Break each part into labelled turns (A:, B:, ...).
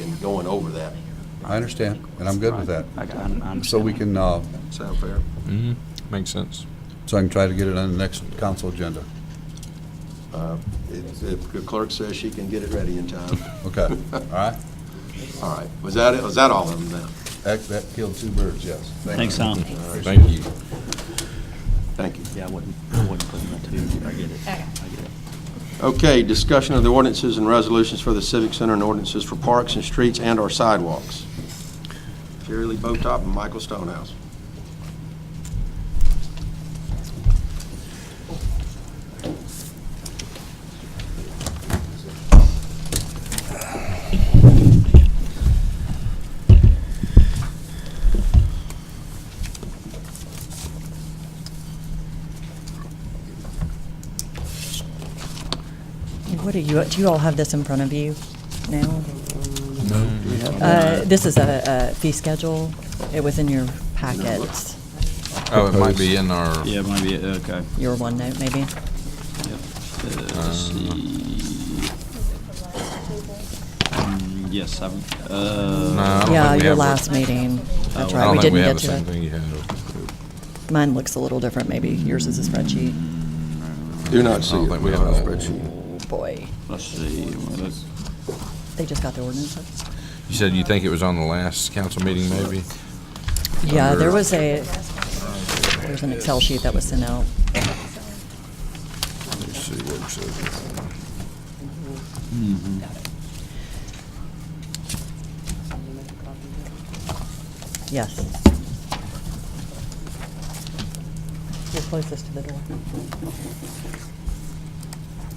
A: and going over that.
B: I understand, and I'm good with that.
C: I, I understand.
B: So we can, uh,
A: Sound fair?
D: Mm-hmm. Makes sense.
B: so I can try to get it on the next council agenda.
A: Uh, if- If the clerk says she can get it ready in time.
B: Okay, all right?
A: All right. Was that, it? was that all of them then?
B: That, that killed two birds, yes. Thank you.
C: Thanks, Tom.
D: Thank you.
A: Thank you.
C: Yeah, I wouldn't, I wouldn't put that two. I get it.
E: Okay.
C: I get it.
A: Okay, discussion of the ordinances and resolutions for the Civic Center and ordinances for parks and streets and our sidewalks. Jerry Lee Botop and Michael Stonehouse.
F: What are you, do you all have this in front of you now? No. This is a a fee schedule. It was in your packet,
D: Oh, it might be in our,
C: Yeah, maybe, uh, okay.
F: your OneNote maybe.
C: Yep. Uh, Let's see. Mm, Yes, I've,
D: Nah, I
C: uh,
D: don't
F: Yeah,
D: think we have
F: your
D: it.
F: last meeting. That's
C: Oh,
D: I
F: right,
D: don't
F: we
D: think we
F: didn't
D: have the
F: get to
D: same
F: it.
D: thing you had.
F: Mine looks a little different maybe. Yours is a spreadsheet.
A: Do not see
D: I don't
A: it.
D: think we have it.
F: Oh, boy.
C: let's see. Well, that's-
F: They just got the ordinance up?
D: You said you think it was on the last council meeting, maybe?
F: Yeah, there
D: Under-
F: was a, there's an Excel sheet that was sent out.
D: Let's see what it says.
C: hmm,
F: Yes. We'll close this to the door.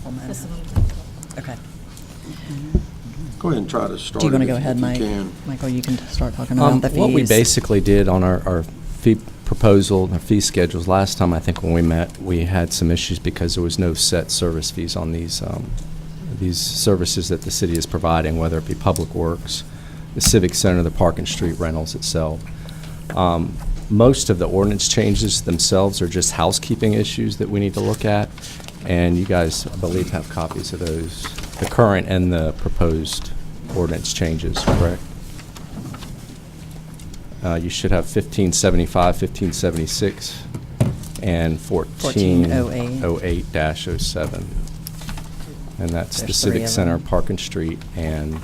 F: Well, mine has- Okay.
A: Go ahead and try to start.
F: Do you want
A: it
F: to go
A: if
F: ahead, Mike?
A: You can.
F: Michael, you can start talking
G: Um,
F: about the fees.
G: What we basically did on our, our fee proposal, our fee schedules, last time, I think when we met, we had some issues because there was no set service fees on these, um, these services that the city is providing, whether it be Public Works, the Civic Center, the Park and Street rentals itself. Um, Most of the ordinance changes themselves are just housekeeping issues that we need to look at, and you guys, I believe, have copies of those, the current and the proposed ordinance changes, correct? Uh, You should have 1575, 1576, and
F: 1408.
G: 1408-07. And that's
F: There's
G: the
F: three
G: Civic
F: of
G: Center,
F: them.
G: Park and Street, and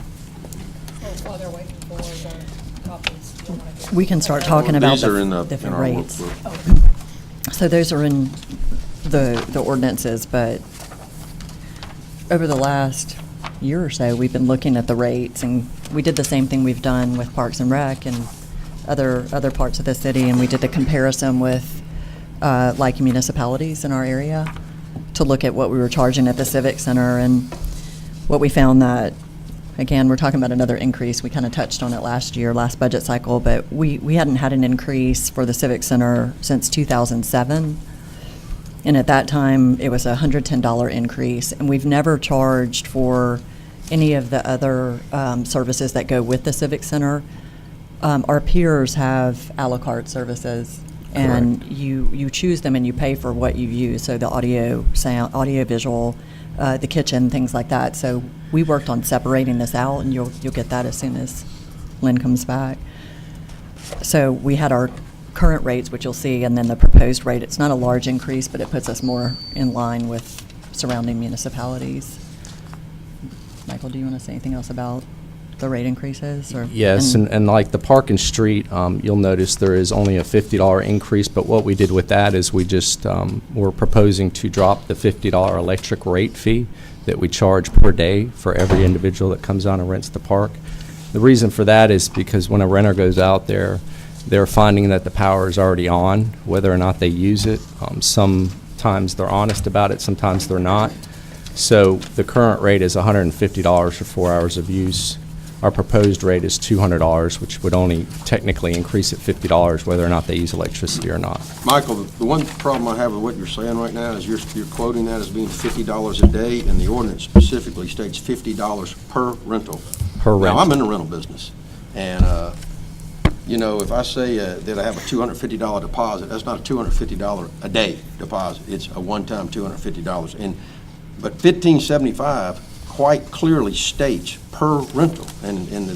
E: While they're waiting for the copies. do Oh, you wanna go?
F: We can start talking about
A: These are in the-
F: the
A: in
F: different
A: our
F: rates.
A: workbook.
F: So those are in the, the ordinances, but over the last year or so, we've been looking at the rates, and we did the same thing we've done with Parks and Rec and other, other parts of the city, and we did the comparison with, uh, like municipalities in our area, to look at what we were charging at the Civic Center, and what we found that, again, we're talking about another increase, we kind of touched on it last year, last budget cycle, but we, we hadn't had an increase for the Civic Center since 2007. And at that time, it was a $110 increase. And we've never charged for any of the other um, services that go with the Civic Center. Um, Our peers have à la carte services. And you, you choose them and you pay for what you use, so the audio, sound, audio visual, uh, the kitchen, things like that. So we worked on separating this out, and you'll, you'll get that as soon as Lynn comes back. So we had our current rates, which you'll see, and then the proposed rate. It's not a large increase, but it puts us more in line with surrounding municipalities. Michael, do you want to say anything else about the rate increases? or-
G: Yes, and, and like the Park and Street, um, you'll notice there is only a fifty dollar increase, but what we did with that is we just, um, we're proposing to drop the fifty dollar electric rate fee that we charge per day for every individual that comes out and rents the park. The reason for that is because when a renter goes out there, they're finding that the power is already on, whether or not they use it. Um, sometimes they're honest about it, sometimes they're not. So the current rate is hundred and fifty dollars for four hours of use. Our proposed rate is $200, which would only technically increase it $50 whether or not they use electricity or not.
A: Michael, the the one problem I have with what you're saying right now is you're, you're quoting that as being fifty dollars a day, and the ordinance specifically states fifty dollars per rental.
G: Per
A: Now, I'm
G: rent.
A: in the rental business, and, uh, you know, if I say uh, that I have a $250 deposit, that's not a $250 a day deposit. It's a one-time $250. And, but 1575 quite clearly states per rental, and, and the